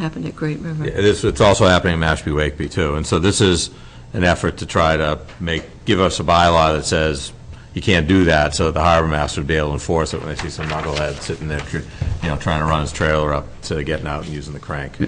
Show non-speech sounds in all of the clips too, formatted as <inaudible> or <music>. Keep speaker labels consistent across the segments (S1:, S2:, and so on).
S1: happened at Great River.
S2: Yeah, This, it's also happening in Mashpee Wakeby too, and so this is an effort to try to make, give us a bylaw that says you can't do that, so that the harbor master would be able to enforce it when they see some knucklehead sitting there, tr- you know, trying to run his trailer up to getting out and using the crank.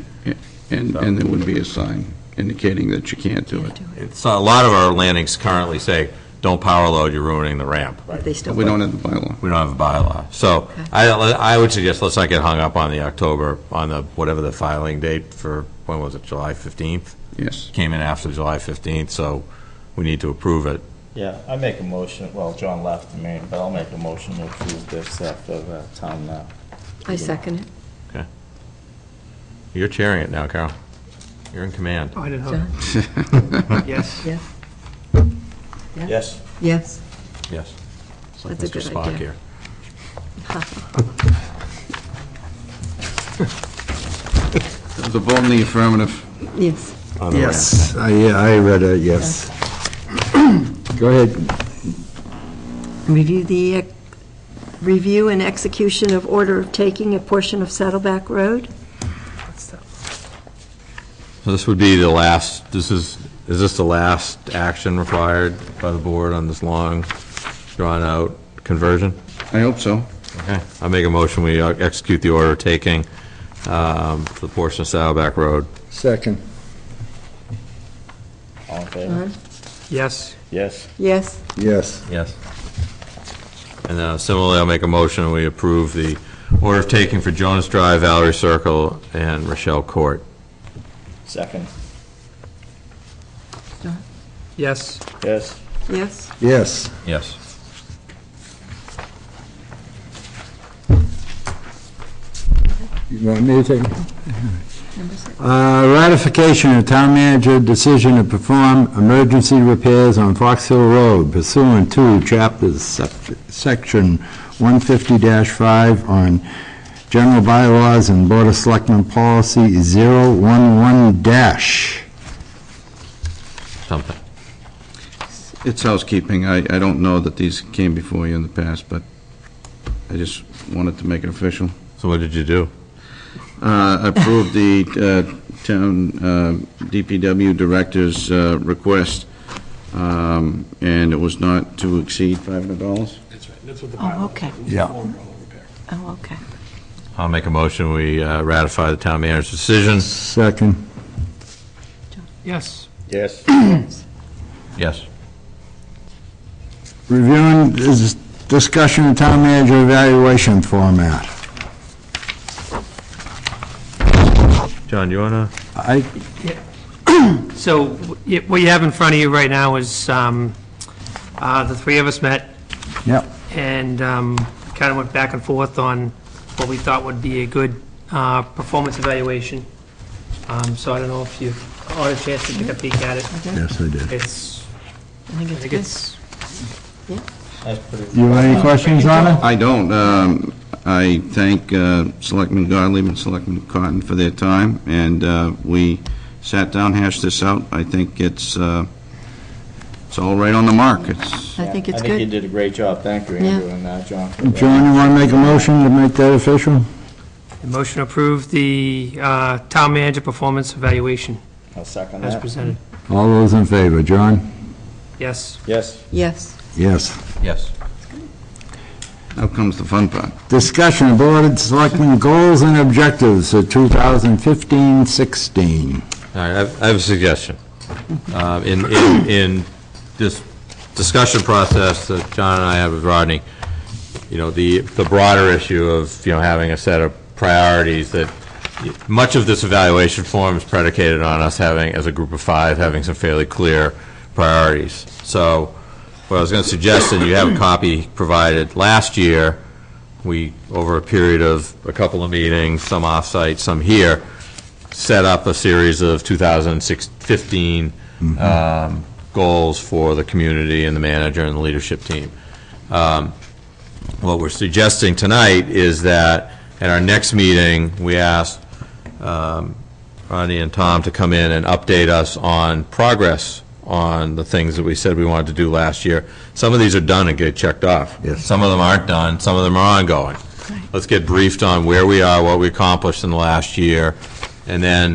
S3: And, and there would be a sign indicating that you can't do it.
S2: It's, a lot of our landings currently say, don't power load, you're ruining the ramp.
S1: But they still.
S3: We don't have the bylaw.
S2: We don't have a bylaw. So I, I would suggest, let's not get hung up on the October, on the, whatever the filing date for, when was it, July 15th?
S3: Yes.
S2: Came in after July 15th, so we need to approve it.
S4: Yeah, I make a motion, well, John left me, but I'll make a motion to approve this after the town now.
S1: I second it.
S2: You're chairing it now, Carol. You're in command.
S5: Oh, I didn't
S1: John?
S5: know. Yes.
S1: Yes,
S4: Yes.
S1: yes.
S2: Yes. It's like
S1: That's a
S2: Mr.
S1: good
S2: Spock
S1: idea.
S2: here.
S3: The vote in the affirmative.
S1: Yes.
S2: on the ramp.
S6: Yes, I, yeah, I read it, yes. <clears throat> Go ahead.
S1: Review the, uh, review and execution of order of taking a portion of Saddleback Road.
S2: So this would be the last, this is, is this the last action required by the board on this long, drawn-out conversion?
S3: I hope so.
S2: Okay, I make a motion, we uh, execute the order taking um, for the portion of Saddleback Road.
S6: Second.
S4: All in favor?
S5: Yes.
S4: Yes.
S1: Yes,
S6: Yes,
S2: Yes. And uh, similarly, I'll make a motion, we approve the order of taking for Jonas Drive, Valerie Circle, and Rochelle Court.
S4: Second.
S5: Yes.
S4: Yes.
S1: yes.
S6: yes.
S2: Yes.
S6: You want me to take?
S1: Number six.
S6: Uh, Ratification of town manager decision to perform emergency repairs on Fox Hill Road pursuant to chapters, sec- section 150-5 on general bylaws and Board of Selectmen policy 011 dash.
S2: Something.
S3: It's housekeeping. I, I don't know that these came before you in the past, but I just wanted to make it official.
S2: So what did you do?
S3: Uh, Approve the uh, town uh, DPW director's uh, request, um, and it was not to exceed $500.
S1: Oh, okay.
S6: Yeah.
S1: Oh, okay.
S2: I'll make a motion, we uh, ratify the town manager's decision.
S6: Second.
S5: Yes.
S4: Yes.
S2: Yes.
S6: Reviewing this discussion of town manager evaluation format.
S2: John, you want to?
S6: I,
S5: So wh- y- what you have in front of you right now is um, uh, the three of us met
S6: yep,
S5: and um, kind of went back and forth on what we thought would be a good uh, performance evaluation. Um, So I don't know if you all had a chance to take a peek at it.
S6: yes, I did.
S5: It's,
S1: I think
S5: I
S1: it's
S5: think
S1: good.
S5: it's,
S4: That's pretty.
S6: You have any questions on it?
S3: I don't. Um, I thank uh, Selectman Gottlieb and Selectman Cotton for their time, and uh, we sat down, hashed this out. I think it's, uh, it's all right on the mark. It's,
S1: I think it's
S4: I think you
S1: good.
S4: did a great job. Thank you,
S1: Yeah.
S4: Andrew and uh, John. for that.
S6: John, you want to make a motion to make that official?
S5: the motion to approve the uh, town manager performance evaluation
S4: I'll second
S5: as
S4: that.
S5: presented.
S6: All those in favor, John?
S5: Yes.
S4: Yes.
S1: Yes,
S6: Yes.
S2: Yes.
S3: now comes the fun part.
S6: Discussion of Board of Selectmen goals and objectives for 2015-16.
S2: All right, I have- I have a suggestion. Uh, In, in, in this discussion process that John and I had with Rodney, you know, the, the broader issue of, you know, having a set of priorities that, much of this evaluation form is predicated on us having, as a group of five, having some fairly clear priorities. So what I was going to suggest, and you have a copy provided, last year, we, over a period of a couple of meetings, some off-site, some here, set up a series of 2015 um, goals for the community and the manager and the leadership team. Um, What we're suggesting tonight is that at our next meeting, we asked um, Ronnie and Tom to come in and update us on progress on the things that we said we wanted to do last year. Some of these are done and get checked off.
S6: Yes.
S2: Some of them aren't done, some of them are ongoing. Let's get briefed on where we are, what we accomplished in the last year, and then